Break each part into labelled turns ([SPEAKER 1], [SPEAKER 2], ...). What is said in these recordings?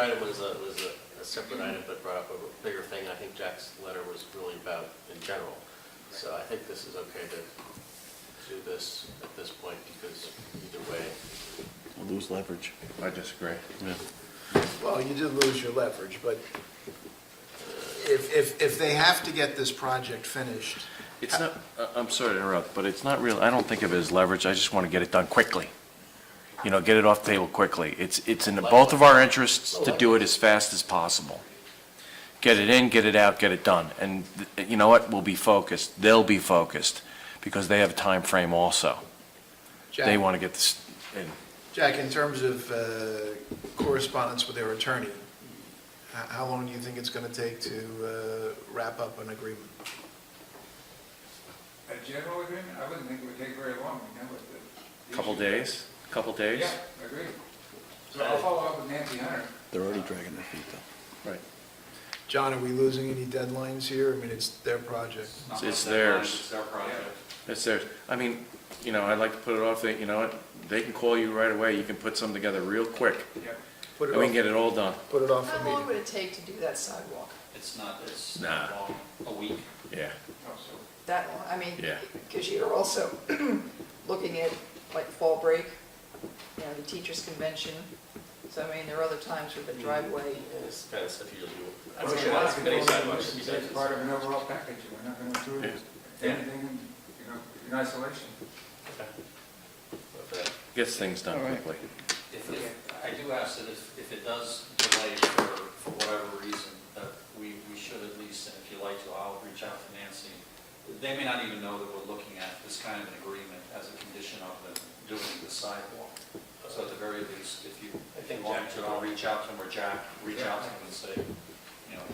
[SPEAKER 1] Item was a, was a- a separate item, but brought up a bigger thing, I think Jack's letter was really about in general. So I think this is okay to do this at this point, because either way.
[SPEAKER 2] We'll lose leverage.
[SPEAKER 3] I disagree.
[SPEAKER 4] Well, you did lose your leverage, but if, if, if they have to get this project finished,
[SPEAKER 2] It's not, I- I'm sorry to interrupt, but it's not real, I don't think of it as leverage, I just want to get it done quickly. You know, get it off the table quickly. It's, it's in the both of our interests to do it as fast as possible. Get it in, get it out, get it done. And th- you know what? We'll be focused, they'll be focused, because they have a time frame also. They
[SPEAKER 4] Jack,
[SPEAKER 2] want to get this in.
[SPEAKER 4] Jack, in terms of uh, correspondence with their attorney, how, how long do you think it's gonna take to uh, wrap up an agreement?
[SPEAKER 5] A general agreement, I wouldn't think it would take very long, you know, with the.
[SPEAKER 2] Couple
[SPEAKER 5] issue.
[SPEAKER 2] days, couple days?
[SPEAKER 5] Yeah, agreed. So I'll follow up with Nancy Hunter.
[SPEAKER 3] They're already dragging their feet, though.
[SPEAKER 4] John, are we losing any deadlines here? I mean, it's their project.
[SPEAKER 2] It's- It's theirs.
[SPEAKER 6] It's their project.
[SPEAKER 2] It's theirs. I mean, you know, I'd like to put it off, They- you know what? They can call you right away, you can put something together real quick,
[SPEAKER 5] Yeah, yeah.
[SPEAKER 4] Put
[SPEAKER 2] and
[SPEAKER 4] it
[SPEAKER 2] we can
[SPEAKER 4] off,
[SPEAKER 2] get it all done.
[SPEAKER 4] put it off the
[SPEAKER 7] How long
[SPEAKER 4] meeting.
[SPEAKER 7] would it take to do that sidewalk?
[SPEAKER 6] It's not, it's
[SPEAKER 2] Nah.
[SPEAKER 6] not long, a week.
[SPEAKER 2] Yeah.
[SPEAKER 5] Oh, so
[SPEAKER 7] That long, I mean,
[SPEAKER 2] Yeah.
[SPEAKER 7] because you're also looking at like fall break, you know, the teachers' convention. So I mean, there are other times where the
[SPEAKER 2] Mm-hmm.
[SPEAKER 7] driveway is,
[SPEAKER 1] It's kind of stuff you usually. I
[SPEAKER 5] Well,
[SPEAKER 1] think
[SPEAKER 5] a lot
[SPEAKER 1] that's
[SPEAKER 5] of
[SPEAKER 1] many
[SPEAKER 5] people
[SPEAKER 1] sidewalks,
[SPEAKER 5] think
[SPEAKER 1] you
[SPEAKER 5] it's
[SPEAKER 1] said.
[SPEAKER 5] Part of an overall package, we're not gonna do
[SPEAKER 1] Yeah.
[SPEAKER 5] anything, in, you know, in isolation.
[SPEAKER 1] Okay.
[SPEAKER 2] Gets things done quickly.
[SPEAKER 6] If, if, I do ask that if, if it does delay for, for whatever reason, that we, we should at least, and if you like to, I'll reach out to Nancy. They may not even know that we're looking at this kind of an agreement as a condition of them doing the sidewalk. So at the very least, if you,
[SPEAKER 1] I
[SPEAKER 6] I
[SPEAKER 1] think
[SPEAKER 6] think want
[SPEAKER 1] Jack-
[SPEAKER 6] to, I'll reach out to them, or Jack, reach out to them and say, you know,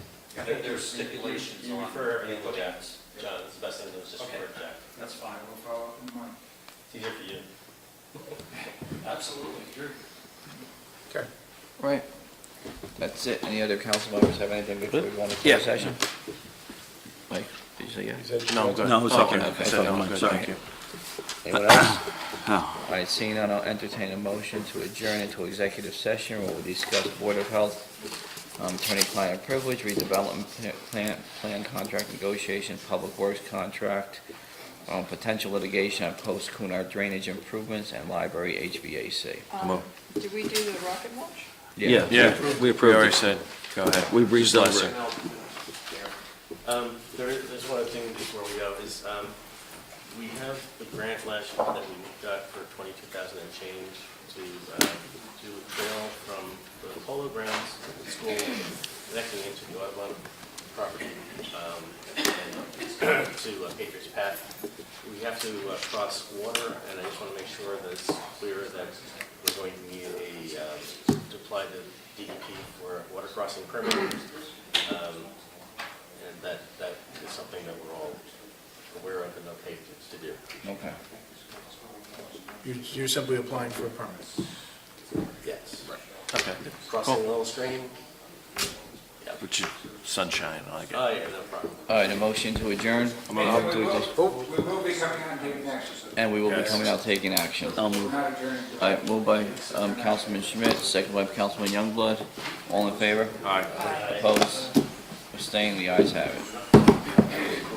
[SPEAKER 6] there- there's stipulations
[SPEAKER 1] You-
[SPEAKER 6] on.
[SPEAKER 1] You refer everything to
[SPEAKER 6] what
[SPEAKER 1] Jack,
[SPEAKER 6] happens.
[SPEAKER 1] John, it's the best thing to do is just
[SPEAKER 6] Okay.
[SPEAKER 1] refer to Jack.
[SPEAKER 6] That's fine,
[SPEAKER 5] We'll follow up in a month.
[SPEAKER 1] It's easier for you.
[SPEAKER 6] absolutely, you're,
[SPEAKER 4] Okay.
[SPEAKER 8] Right. That's it. Any other council members have anything before we go into
[SPEAKER 2] Yeah.
[SPEAKER 8] closed session? Mike, did you say yes?
[SPEAKER 2] No, I'm good.
[SPEAKER 8] No, it's
[SPEAKER 2] Oh,
[SPEAKER 8] okay.
[SPEAKER 2] I said no, I'm good,
[SPEAKER 8] Sorry.
[SPEAKER 2] thank you.
[SPEAKER 8] Anyone else? All right, seeing none, I'll entertain a motion to adjourn into executive session where we'll discuss Board of Health, um, attorney-client privilege, redevelopment pla- plan, plan contract negotiation, public works contract, um, potential litigation on post-Kunar drainage improvements, and library HVAC.
[SPEAKER 2] Come on.
[SPEAKER 7] um, do we do the rocket launch?
[SPEAKER 2] Yeah, we approved. We already said, go ahead. We breezed over
[SPEAKER 1] Um, there is, there's one other thing before we go, is, um, we have the grant last year that we got for twenty-two thousand and change to, uh, do a trail from the polo grounds to the school, connecting into the Audubon property, um, and to uh, Patriots Path. We have to uh, cross water, and I just want to make sure that it's clear that we're going to need a, uh, to apply the DEP for a water crossing permit. Um, and that, that is something that we're all aware of and okay to to do.
[SPEAKER 8] Okay.
[SPEAKER 4] You're, you're simply applying for a permit.
[SPEAKER 1] Yes.
[SPEAKER 2] Okay,
[SPEAKER 1] Crossing the little stream?
[SPEAKER 2] which is sunshine, I like it.
[SPEAKER 1] Oh, yeah, no problem.
[SPEAKER 8] All right, a motion to adjourn.
[SPEAKER 5] And
[SPEAKER 8] I'll
[SPEAKER 5] We
[SPEAKER 8] do
[SPEAKER 5] will,
[SPEAKER 8] this.
[SPEAKER 5] we will be coming out and taking action, so
[SPEAKER 8] And we will be
[SPEAKER 2] Yes.
[SPEAKER 8] coming out taking action. I'll
[SPEAKER 5] we're not adjourned. until-
[SPEAKER 8] All right, moved by um, Councilman Schmidt, second by Councilman Youngblood. All in favor? Aye. Opposed? Abstained? The ayes have it.